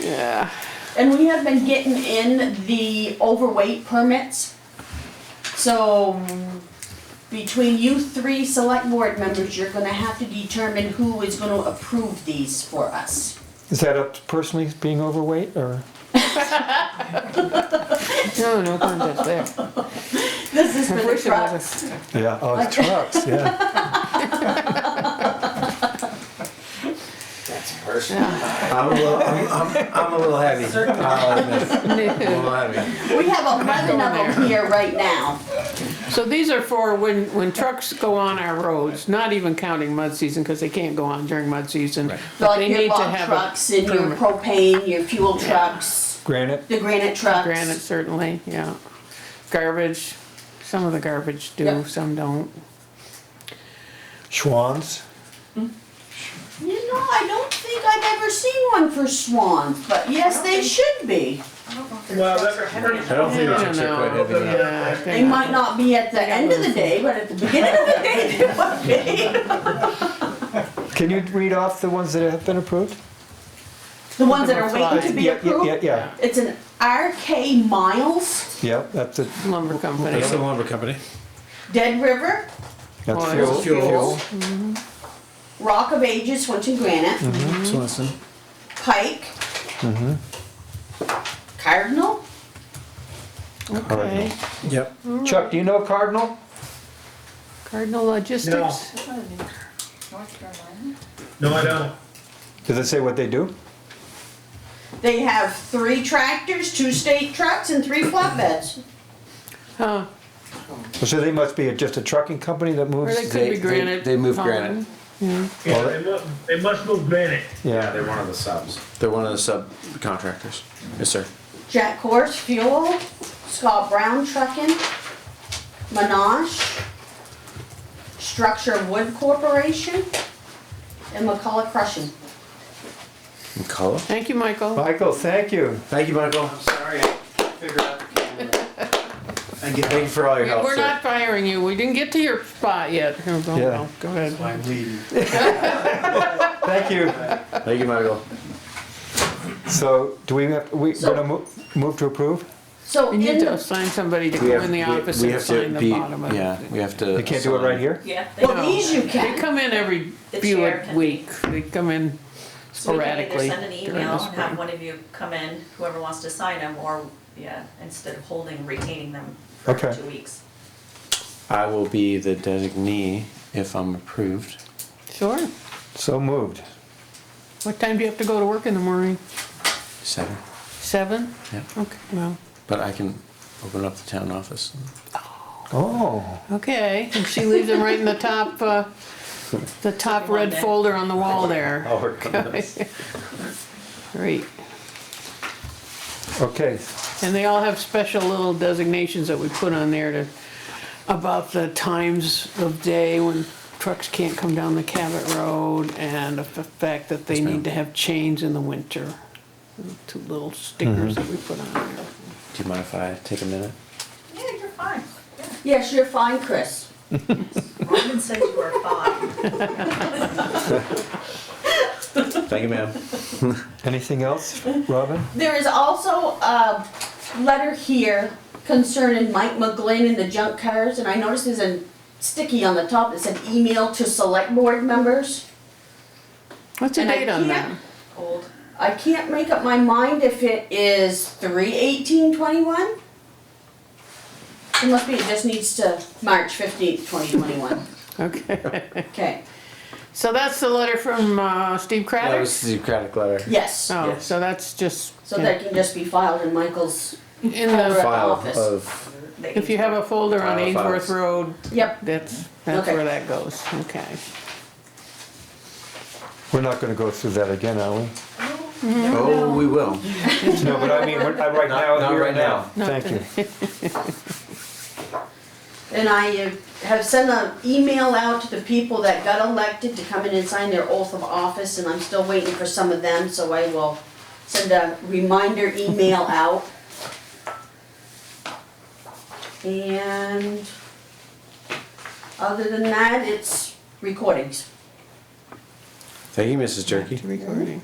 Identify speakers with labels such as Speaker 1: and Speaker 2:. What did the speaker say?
Speaker 1: Yeah.
Speaker 2: And we have been getting in the overweight permits. So between you three select board members, you're gonna have to determine who is gonna approve these for us.
Speaker 3: Is that up to personally being overweight or?
Speaker 1: No, no contest there.
Speaker 2: This is for
Speaker 1: I
Speaker 2: the
Speaker 1: wish it
Speaker 2: trucks.
Speaker 1: wasn't.
Speaker 3: Yeah, oh, it's trucks, yeah.
Speaker 4: That's personal.
Speaker 1: Yeah.
Speaker 5: I'm a little, I'm, I'm, I'm a little heavy. I'll admit. I'm a little heavy.
Speaker 2: We have eleven of them here right now.
Speaker 1: So these are for when, when trucks go on our roads, not even counting mud season, because they can't go on during mud season. But they
Speaker 2: Like your
Speaker 1: need to
Speaker 2: log
Speaker 1: have
Speaker 2: trucks
Speaker 1: a
Speaker 2: and your
Speaker 1: permit.
Speaker 2: propane, your fuel trucks,
Speaker 3: Granite,
Speaker 2: the granite trucks.
Speaker 1: Granite certainly, yeah. Garbage, some of the garbage do,
Speaker 2: Yep.
Speaker 1: some don't.
Speaker 3: Schwans,
Speaker 2: You know, I don't think I've ever seen one for swans, but yes, they should be.
Speaker 6: Well, that's pretty.
Speaker 5: I don't think
Speaker 1: I
Speaker 5: the
Speaker 1: don't
Speaker 5: chicks are quite
Speaker 1: know.
Speaker 5: heavy. yet.
Speaker 1: Yeah,
Speaker 2: They might not be at the
Speaker 1: got
Speaker 2: end of the
Speaker 1: little-
Speaker 2: day, but at the beginning of the day, they might
Speaker 3: can you read off the ones that have been approved?
Speaker 2: be. The ones that are waiting to be
Speaker 3: Yeah, yeah, yeah,
Speaker 2: approved.
Speaker 3: yeah,
Speaker 2: It's an RK Miles,
Speaker 3: yeah, that's it,
Speaker 1: Lumber company.
Speaker 4: That's the lumber company.
Speaker 2: Dead River,
Speaker 3: that's
Speaker 1: Oil.
Speaker 3: fuel. Mm-hmm.
Speaker 5: Fuel.
Speaker 2: Rock of Ages, Swinton Granite,
Speaker 5: Swanson.
Speaker 2: Pike,
Speaker 3: Mm-hmm.
Speaker 2: Cardinal.
Speaker 1: Okay.
Speaker 5: Yep.
Speaker 3: Chuck, do you know Cardinal?
Speaker 1: Cardinal Logistics.
Speaker 6: No, I don't.
Speaker 3: Does it say what they do?
Speaker 2: They have three tractors, two state trucks, and three flatbeds.
Speaker 1: Huh,
Speaker 3: So they must be just a trucking company that
Speaker 1: or
Speaker 3: moves?
Speaker 1: they could
Speaker 5: They-
Speaker 1: be
Speaker 5: they-
Speaker 1: granite.
Speaker 5: they move
Speaker 1: column.
Speaker 5: granite.
Speaker 6: Yeah, they must, they must move granite.
Speaker 4: Yeah,
Speaker 3: Yeah,
Speaker 4: they're one of the subs. They're one of the subcontractors. Yes, sir.
Speaker 2: Jack Horse Fuel, Scott Brown Trucking, Menage, Structure Wood Corporation, and McCullough Crushing.
Speaker 4: McCullough.
Speaker 1: Thank you, Michael.
Speaker 3: Michael, thank you.
Speaker 5: Thank you, Michael.
Speaker 4: I'm sorry, I figured out the camera.
Speaker 5: Thank you, thank you for all your help.
Speaker 1: We're
Speaker 5: sir.
Speaker 1: not firing you. We didn't get to your spot yet. Here, go,
Speaker 3: Yeah.
Speaker 1: go, Go ahead.
Speaker 4: I'm leaving.
Speaker 3: Thank you.
Speaker 5: Thank you, Michael.
Speaker 3: So do we have, we gonna mo- move to approve?
Speaker 2: So
Speaker 1: You
Speaker 2: in
Speaker 1: need to
Speaker 2: the,
Speaker 1: assign somebody to
Speaker 5: We
Speaker 1: come
Speaker 5: have,
Speaker 1: in the
Speaker 5: we-
Speaker 1: office
Speaker 5: we
Speaker 1: and
Speaker 5: have
Speaker 1: sign
Speaker 5: to
Speaker 1: the
Speaker 5: be,
Speaker 1: bottom of it.
Speaker 5: yeah, we have to.
Speaker 3: They can't do it right here?
Speaker 7: Yeah. they
Speaker 2: well,
Speaker 1: No.
Speaker 2: these you
Speaker 1: They
Speaker 2: can.
Speaker 1: come in every
Speaker 7: The
Speaker 1: few
Speaker 7: chair
Speaker 1: a
Speaker 7: can
Speaker 1: week. They come in
Speaker 7: So we can either
Speaker 1: sporadically
Speaker 7: send an
Speaker 1: during
Speaker 7: email
Speaker 1: the
Speaker 7: and have
Speaker 1: spring.
Speaker 7: one of you come in, whoever wants to sign them, or, yeah, instead of holding, retaining them for
Speaker 3: Okay.
Speaker 7: two weeks.
Speaker 5: I will be the designee if I'm approved.
Speaker 1: Sure.
Speaker 3: So moved.
Speaker 1: What time do you have to go to work in the morning?
Speaker 5: Seven.
Speaker 1: Seven?
Speaker 5: Yeah.
Speaker 1: Okay, well,
Speaker 5: But I can open up the town office.
Speaker 3: Oh,
Speaker 1: okay. And she leaves them right in the top, uh, the top
Speaker 7: One
Speaker 1: red
Speaker 7: day.
Speaker 1: folder on the wall there.
Speaker 5: I'll work on this.
Speaker 1: Great.
Speaker 3: okay.
Speaker 1: And they all have special little designations that we put on there to, about the times of day when trucks can't come down the Cabot Road and the f- fact that they
Speaker 5: Yes, ma'am.
Speaker 1: need to have chains in the winter. Two little stickers that we put
Speaker 5: Mm-hmm.
Speaker 1: on there.
Speaker 5: Do you mind if I take a minute?
Speaker 7: Yeah, you're fine. Yeah.
Speaker 2: Yes, you're fine, Chris.
Speaker 7: Robin said you were fine.
Speaker 5: Thank you, ma'am.
Speaker 3: Anything else, Robin?
Speaker 2: There is also a letter here concerning Mike McGlynn and the junk cars, and I noticed there's a sticky on the top that said email to select board members.
Speaker 1: What's the
Speaker 2: And I
Speaker 1: date on that?
Speaker 2: can't- I can't make up my mind if it is three eighteen twenty-one. It must be, it just needs to March fifteenth, twenty twenty-one.
Speaker 1: Okay.
Speaker 2: Okay,
Speaker 1: So that's the letter from uh, Steve
Speaker 5: That
Speaker 1: Craddock?
Speaker 5: was the Socratic letter.
Speaker 2: yes,
Speaker 1: Oh,
Speaker 5: yes.
Speaker 1: so that's just,
Speaker 2: so
Speaker 1: yeah.
Speaker 2: that can just be filed in Michael's,
Speaker 1: in the,
Speaker 5: File
Speaker 2: Office.
Speaker 5: of
Speaker 7: They-
Speaker 1: if you have a folder on
Speaker 5: File files.
Speaker 1: Ainsworth Road,
Speaker 2: yep,
Speaker 1: that's, that's
Speaker 2: Okay.
Speaker 1: where that goes, okay.
Speaker 3: We're not gonna go through that again, are we?
Speaker 5: oh, we will.
Speaker 3: No, but I mean, we're- I- right
Speaker 5: Not-
Speaker 3: now,
Speaker 5: not
Speaker 3: here
Speaker 5: right
Speaker 3: and now.
Speaker 1: now.
Speaker 3: Thank you.
Speaker 2: and I have sent an email out to the people that got elected to come in and sign their oath of office, and I'm still waiting for some of them, so I will send a reminder email out. And other than that, it's recordings.
Speaker 5: Thank you, Mrs. Jerky.
Speaker 1: Recording.